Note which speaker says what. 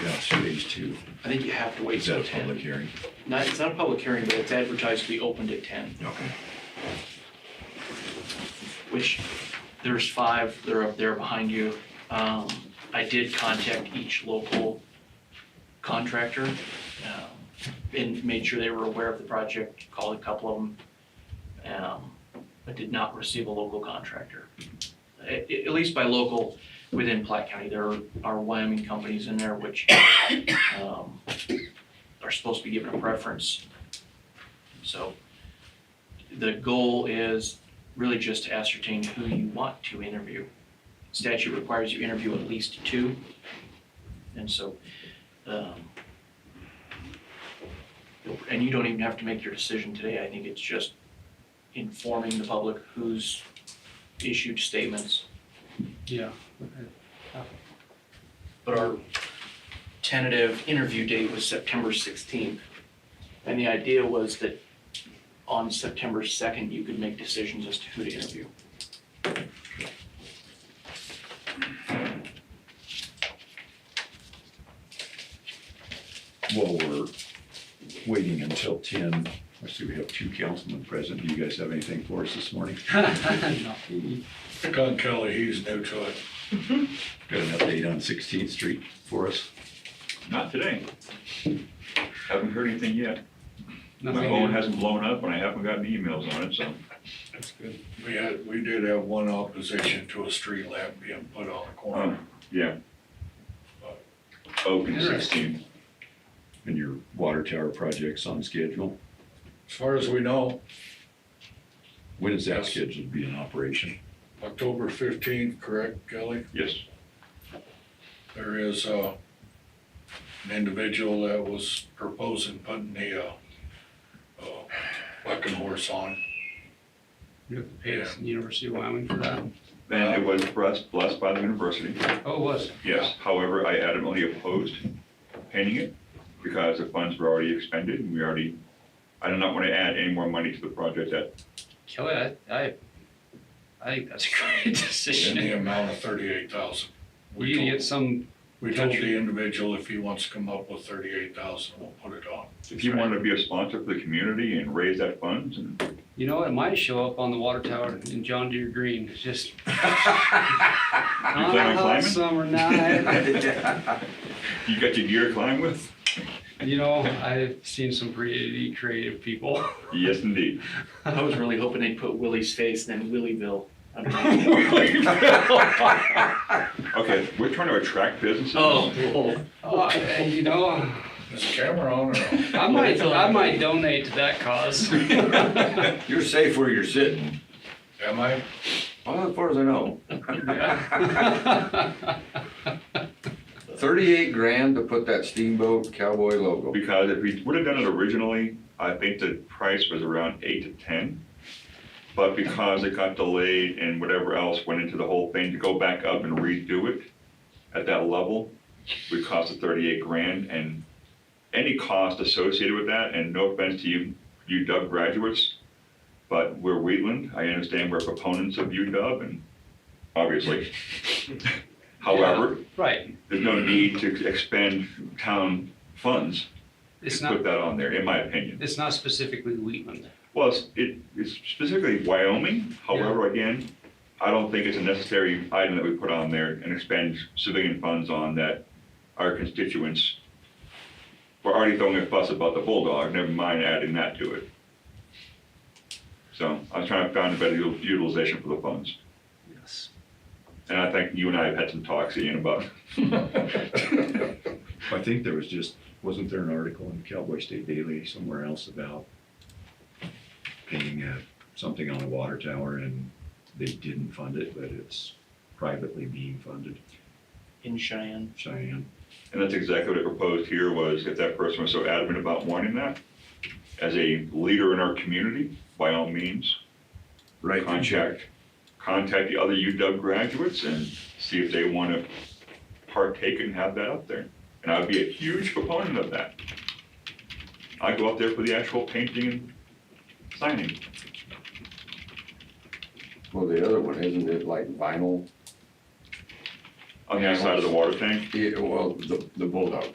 Speaker 1: I think you have to wait
Speaker 2: Is that
Speaker 1: till
Speaker 2: a public
Speaker 1: 10.
Speaker 2: hearing?
Speaker 1: Not, it's not a public hearing, but it's advertised to be opened at 10,
Speaker 2: Okay.
Speaker 1: which there's five, they're up there behind you. Um, I did contact each local contractor um, and made sure they were aware of the project, called a couple of them. Um, I did not receive a local contractor. At, at least by local, within Platte County, there are Wyoming companies in there which um, are supposed to be given a preference. So the goal is really just to ascertain who you want to interview. Statute requires you interview at least two. And so, um, and you don't even have to make your decision today. I think it's just informing the public who's issued statements.
Speaker 3: Yeah.
Speaker 1: But our tentative interview date was September sixteenth. And the idea was that on September second, you could make decisions as to who to interview.
Speaker 2: While we're waiting until ten, I see we have two councilmen present. Do you guys have anything for us this morning?
Speaker 3: No.
Speaker 4: Pick on Kelly, he's new to it.
Speaker 2: Got an update on Sixteenth Street for us?
Speaker 5: Not today. Haven't heard anything yet. My
Speaker 3: Nothing
Speaker 5: phone
Speaker 3: new.
Speaker 5: hasn't blown up and I haven't gotten emails on it, so.
Speaker 3: That's good.
Speaker 4: We had, we did have one opposition to a street lamp being put on the corner.
Speaker 5: Yeah. Oak and sixteen.
Speaker 2: And your water tower project's on schedule?
Speaker 4: As far as we know,
Speaker 2: When is that
Speaker 4: Yes.
Speaker 2: scheduled to be in operation?
Speaker 4: October fifteenth, correct, Kelly?
Speaker 5: Yes,
Speaker 4: There is, uh, an individual that was proposing putting the, uh, uh, bucking horse on.
Speaker 3: You have to pay us in University of Wyoming for that.
Speaker 5: and it was blessed, blessed by the university.
Speaker 3: Oh, it was.
Speaker 5: Yes, however, I adamantly opposed painting it because the funds were already expended and we already, I do not want to add any more money to the project at
Speaker 3: Kelly, I, I, I think that's a great
Speaker 4: In
Speaker 3: decision.
Speaker 4: the amount of thirty-eight thousand.
Speaker 3: We need to get some,
Speaker 4: We told the individual if he wants to come up with thirty-eight thousand, we'll put it on.
Speaker 5: If you want to be a sponsor for the community and raise that funds and
Speaker 3: you know, it might show up on the water tower in John Deere Green, it's just.
Speaker 5: on
Speaker 3: On a hot
Speaker 5: climbing?
Speaker 3: summer night.
Speaker 5: you got your gear to climb with,
Speaker 3: You know, I've seen some pretty creative people.
Speaker 5: yes indeed.
Speaker 1: I was really hoping they'd put Willie's face and then Willieville. I don't know.
Speaker 5: Okay, we're trying to attract businesses.
Speaker 1: Oh, cool.
Speaker 3: Oh, I- You know,
Speaker 4: Is the camera on or off?
Speaker 3: I might, I might donate to that cause.
Speaker 6: You're safe where you're sitting.
Speaker 4: Am I?
Speaker 6: Well, as far as I know. Thirty-eight grand to put that steamboat cowboy logo.
Speaker 5: Because if we would have done it originally, I think the price was around eight to ten. But because it got delayed and whatever else went into the whole thing, to go back up and redo it at that level would cost a thirty-eight grand and any cost associated with that, and no offense to you, UW graduates, but we're Wheatland, I understand we're proponents of UW and obviously. However,
Speaker 3: Right,
Speaker 5: there's no need to expend town funds
Speaker 3: it's
Speaker 5: to
Speaker 3: not,
Speaker 5: put that on there, in my opinion.
Speaker 3: it's not specifically Wheatland.
Speaker 5: Well, it's, it, it's specifically Wyoming, however, again, I don't think it's a necessary item that we put on there and expend civilian funds on that our constituents were already throwing a fuss about the Bulldog, never mind adding that to it. So I was trying to find a better u- utilization for the funds.
Speaker 3: Yes.
Speaker 5: And I think you and I have had some talks, Ian, about,
Speaker 2: I think there was just, wasn't there an article in Cowboy State Daily somewhere else about painting uh, something on a water tower and they didn't fund it, but it's privately being funded,
Speaker 1: In Cheyenne.
Speaker 2: Cheyenne?
Speaker 5: and that's exactly what I proposed here was if that person was so adamant about wanting that, as a leader in our community, by all means,
Speaker 6: Right.
Speaker 5: contact, contact the other UW graduates and see if they want to partake and have that up there. And I'd be a huge proponent of that. I go up there for the actual painting and signing.
Speaker 6: Well, the other one, isn't it like vinyl?
Speaker 5: On the outside of the water tank,
Speaker 6: Yeah, well, the, the bulldog.